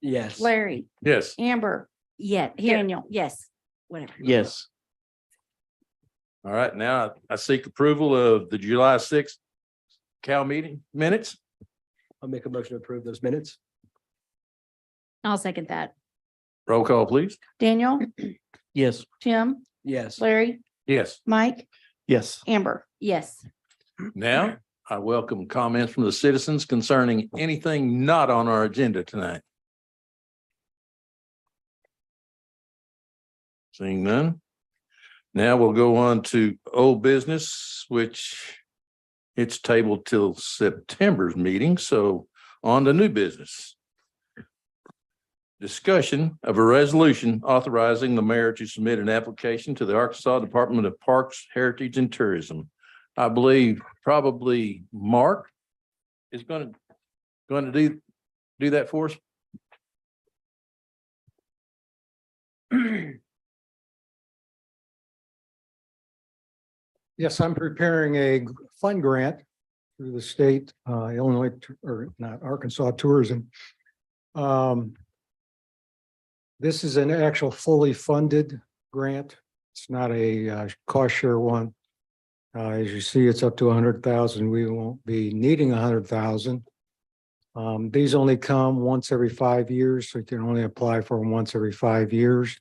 Yes. Larry, Yes. Amber, Yeah, here, Daniel. yes, whatever. Yes. All right, now I seek approval of the July sixth Cal meeting minutes. I'll make a motion to approve those minutes. I'll second that. Roll call, please. Daniel, Yes. Tim, Yes. Larry, Yes. Mike, Yes. Amber. Yes, Now, I welcome comments from the citizens concerning anything not on our agenda tonight. Seeing none. Now we'll go on to old business, which it's tabled till September's meeting, so on to new business. Discussion of a resolution authorizing the mayor to submit an application to the Arkansas Department of Parks, Heritage and Tourism. I believe probably Mark is gonna, gonna do, do that for us. Yes, I'm preparing a g- fund grant through the state, uh, Illinois, Tou- or not Arkansas Tourism. Um, This is an actual fully funded grant. It's not a uh, cost share one. Uh, as you see, it's up to a hundred thousand. We won't be needing a hundred thousand. Um, these only come once every five years, so you can only apply for them once every five years.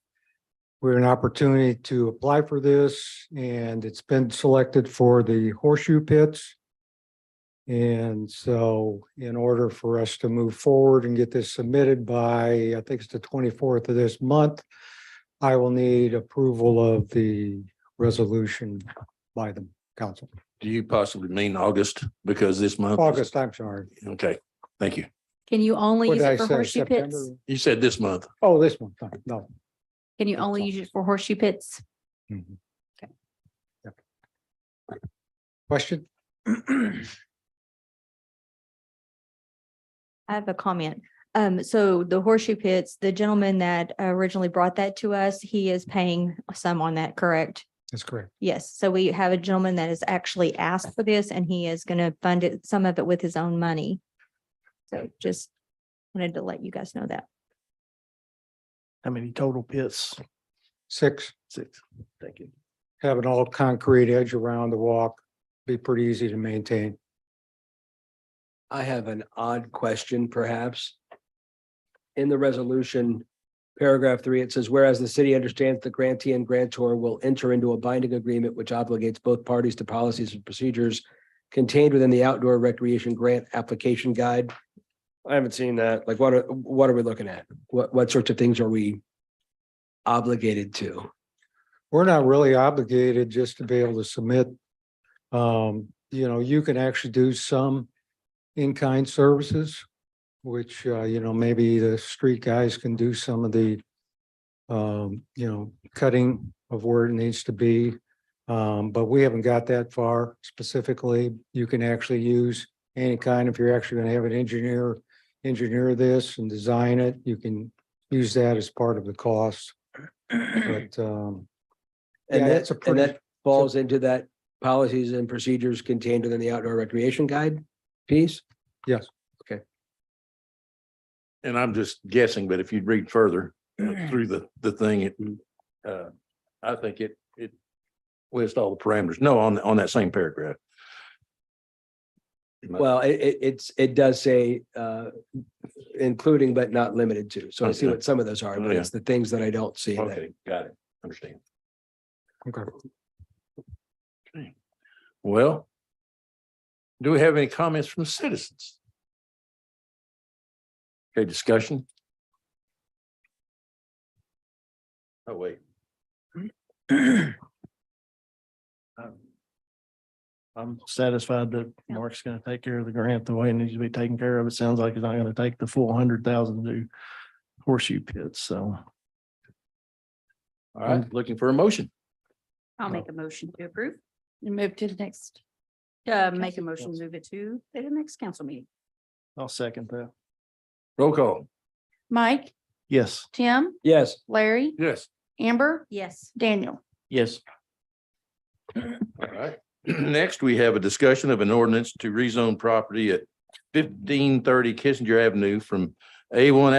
We're an opportunity to apply for this and it's been selected for the horseshoe pits. And so in order for us to move forward and get this submitted by, I think it's the twenty-fourth of this month, I will need approval of the resolution by the council. Do you possibly mean August? Because this month. is- August, I'm sorry. Okay, thank you. can you only What use did I it for say? horseshoe pits? September? You said this month. Oh, this one, no, no. Can you only use it for horseshoe pits? Mhm. Yep. Question? I have a comment. Um, so the horseshoe pits, the gentleman that originally brought that to us, he is paying some on that, correct? That's correct. Yes, so we have a gentleman that has actually asked for this and he is going to fund it, some of it with his own money. So just wanted to let you guys know that. How many total pits? Six. Six. Thank you. have an all concrete edge around the walk, be pretty easy to maintain. I have an odd question perhaps. In the resolution, paragraph three, it says, whereas the city understands the grantee and grantor will enter into a binding agreement which obligates both parties to policies and procedures contained within the outdoor recreation grant application guide. I haven't seen that. Like, what are, what are we looking at? What, what sorts of things are we obligated to? We're not really obligated just to be able to submit. Um, you know, you can actually do some in-kind services, which, uh, you know, maybe the street guys can do some of the um, you know, cutting of where it needs to be. Um, but we haven't got that far specifically. You can actually use any kind, if you're actually gonna have an engineer engineer this and design it, you can use that as part of the cost. But um, And Yeah, that's it's a a and pretty- that falls into that policies and procedures contained within the outdoor recreation guide piece? And I'm just guessing, but if you'd read further through the, the thing, it, uh, I think it, it lists all the parameters. No, on, on that same paragraph. Well, it, it, it's, it does say, uh, including but not limited to. So I see Okay. what some of those are, Oh, but yeah. it's the things that I don't see. that- Okay, got it. Understand. okay. Well, do we have any comments from citizens? Okay, discussion? Oh, wait. Um, I'm satisfied that Yeah. Mark's gonna take care of the grant the way it needs to be taken care of. It sounds like he's not gonna take the full hundred thousand to horseshoe pits, so. All right, looking for a motion. I'll make a motion to approve. Move to the next. Uh, make a Council. motion, move it to the next council meeting. I'll second that. Roll call. Mike, Yes. Tim, Yes, Larry, Yes. Amber, Yes, Daniel. Yes. All right. Next, we have a discussion of an ordinance to rezone property at fifteen thirty Kissinger Avenue from A one